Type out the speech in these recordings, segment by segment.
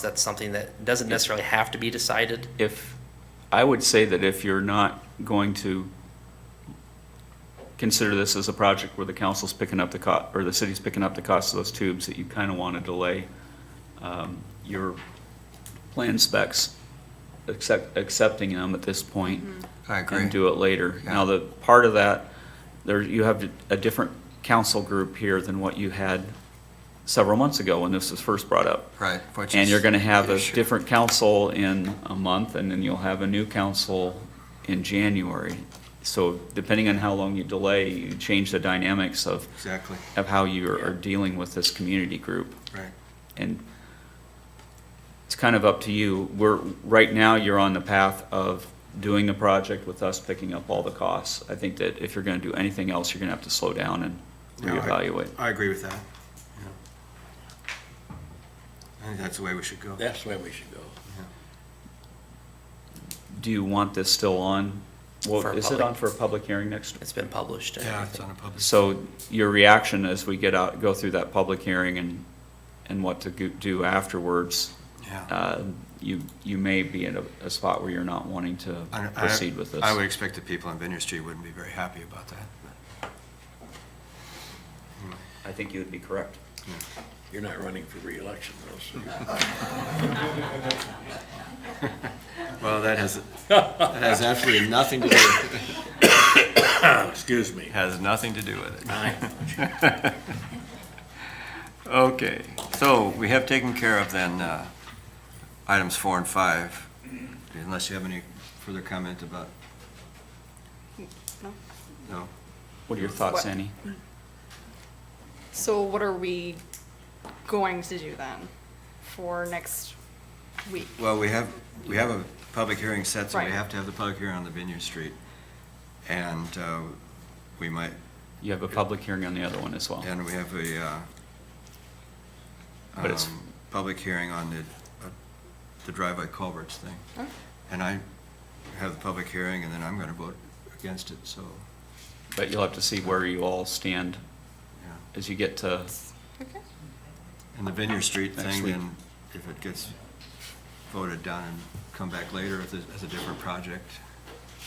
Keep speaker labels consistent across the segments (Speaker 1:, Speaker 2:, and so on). Speaker 1: That's something that doesn't necessarily have to be decided.
Speaker 2: if, I would say that if you're not going to consider this as a project where the council's picking up the co, or the city's picking up the cost of those tubes, that you kind of want to delay um, your plan specs, accept, accepting them at this point.
Speaker 3: I
Speaker 2: And do it later.
Speaker 3: Yeah.
Speaker 2: Now, the part of that, there, you have a different council group here than what you had several months ago when this was first brought up.
Speaker 3: Right. which
Speaker 2: And
Speaker 3: is
Speaker 2: you're gonna have a
Speaker 3: issue.
Speaker 2: different council in a month, and then you'll have a new council in January. So depending on how long you delay, you change the dynamics of,
Speaker 3: Exactly,
Speaker 2: of how you are dealing with this community group.
Speaker 3: right.
Speaker 2: And it's kind of up to you. We're, right now, you're on the path of doing the project with us picking up all the costs. I think that if you're gonna do anything else, you're gonna have to slow down and
Speaker 3: No, I-
Speaker 2: reevaluate.
Speaker 3: I agree with that. yeah. I think that's the way we should go.
Speaker 4: That's the way we should go.
Speaker 2: Do you want this still on? Well,
Speaker 1: For a
Speaker 2: is it
Speaker 1: public-
Speaker 2: on for a public hearing next?
Speaker 1: It's been published. and
Speaker 3: Yeah,
Speaker 1: everything.
Speaker 3: it's on a public.
Speaker 2: So your reaction as we get out, go through that public hearing and, and what to go- do afterwards,
Speaker 3: Yeah.
Speaker 2: uh, you, you may be in a, a spot where you're not wanting to
Speaker 3: I- I-
Speaker 2: proceed with this.
Speaker 3: I would expect the people on Vineyard Street wouldn't be very happy about that.
Speaker 2: I think you would be correct.
Speaker 4: You're not running for reelection though,
Speaker 3: Hmm.
Speaker 4: so.
Speaker 3: Well, that has, that has absolutely nothing to do,
Speaker 4: Ah, Excuse me.
Speaker 3: has nothing to do with it.
Speaker 4: I-
Speaker 3: Okay, so we have taken care of then, uh, items four and five, unless you have any further comment about?
Speaker 5: No.
Speaker 3: No?
Speaker 2: What are your thoughts,
Speaker 5: What-
Speaker 2: Annie?
Speaker 5: So what are we going to do then for next week?
Speaker 3: Well, we have, we have a public hearing set, so we
Speaker 5: Right.
Speaker 3: have to have the public hearing on the Vineyard Street. And uh, we might,
Speaker 2: You have a public hearing on the other one as well.
Speaker 3: and we have a uh,
Speaker 2: But it's-
Speaker 3: um, public hearing on the, uh, the driveway culverts thing.
Speaker 5: Oh.
Speaker 3: And I have the public hearing, and then I'm going to vote against it, so,
Speaker 2: But you'll have to see where you all stand
Speaker 3: yeah.
Speaker 2: as you get to,
Speaker 5: Okay.
Speaker 3: And the Vineyard Street
Speaker 2: Next
Speaker 3: thing,
Speaker 2: week.
Speaker 3: then, if it gets voted down and come back later as a, as a different project,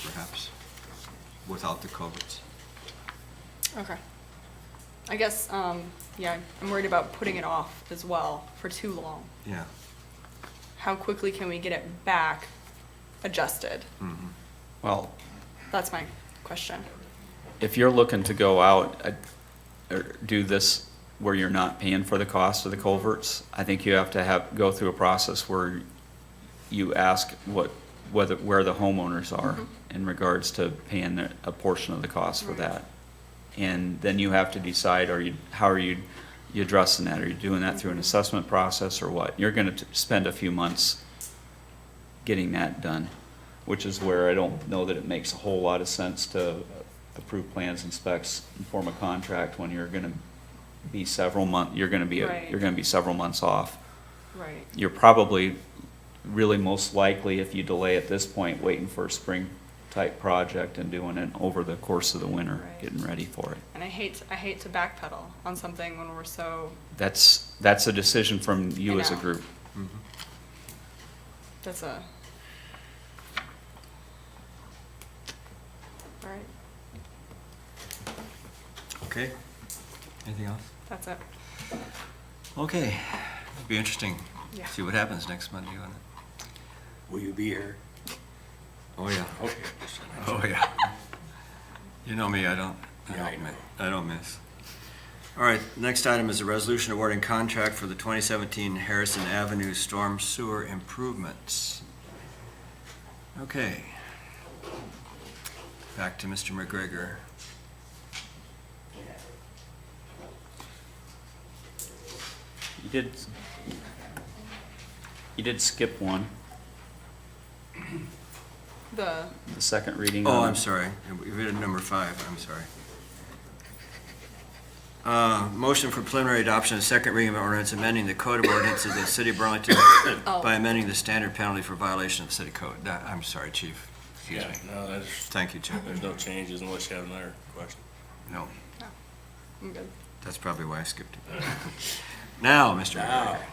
Speaker 3: perhaps, without the culverts.
Speaker 5: Okay. I guess, um, yeah, I'm worried about putting it off as well for too long.
Speaker 3: Yeah.
Speaker 5: How quickly can we get it back adjusted?
Speaker 3: mhm.
Speaker 2: well,
Speaker 5: That's my question.
Speaker 2: if you're looking to go out, uh, or do this where you're not paying for the cost of the culverts, I think you have to have, go through a process where you ask what, whether, where the homeowners are in regards to paying their- a portion of the cost for
Speaker 5: Mm-hmm. Right.
Speaker 2: that. And then you have to decide, are you, how are you, you addressing that? Are you doing that through
Speaker 5: Mm-hmm.
Speaker 2: an assessment process or what? You're gonna t- spend a few months getting that done, which is where I don't know that it makes a whole lot of sense to approve plans and specs and form a contract when you're gonna be several month, you're gonna be, a-
Speaker 5: Right.
Speaker 2: you're gonna be several months off.
Speaker 5: Right.
Speaker 2: You're probably, really most likely, if you delay at this point, waiting for a spring-type project and doing it over the course of the winter,
Speaker 5: Right.
Speaker 2: getting ready for it.
Speaker 5: And I hate, I hate to backpedal on something when we're so,
Speaker 2: That's, that's a decision from you
Speaker 5: I
Speaker 2: as a
Speaker 5: know.
Speaker 2: group.
Speaker 3: mm-hmm.
Speaker 5: that's a. All right,
Speaker 3: Okay. Anything else?
Speaker 5: that's it.
Speaker 3: Okay. Be interesting.
Speaker 5: Yeah.
Speaker 3: See what happens next Monday on it.
Speaker 4: Will you be here?
Speaker 3: Oh, yeah.
Speaker 4: Okay.
Speaker 3: Oh, yeah. You know me, I don't, I
Speaker 4: Yeah, I
Speaker 3: don't,
Speaker 4: know.
Speaker 3: mi- I don't miss. All right, next item is a resolution awarding contract for the 2017 Harrison Avenue Storm Sewer Improvements. Okay. Back to Mr. McGregor.
Speaker 2: You did, you did skip one,
Speaker 5: The,
Speaker 2: the second reading.
Speaker 3: Oh,
Speaker 2: on
Speaker 3: I'm
Speaker 2: it.
Speaker 3: sorry. We did number five, I'm sorry. Uh, Motion for preliminary adoption of second reading of ordinance amending the code of ordinances of the city of Burlington
Speaker 4: Oh.
Speaker 3: by amending the standard penalty for violation of the city code. That- I'm sorry, chief. Excuse
Speaker 4: Yeah,
Speaker 3: me.
Speaker 4: no, there's,
Speaker 3: Thank you, chief.
Speaker 4: there's no changes unless you have another question.
Speaker 3: No,
Speaker 5: I'm good.
Speaker 3: that's probably why I skipped it. Now, Mr. McGregor.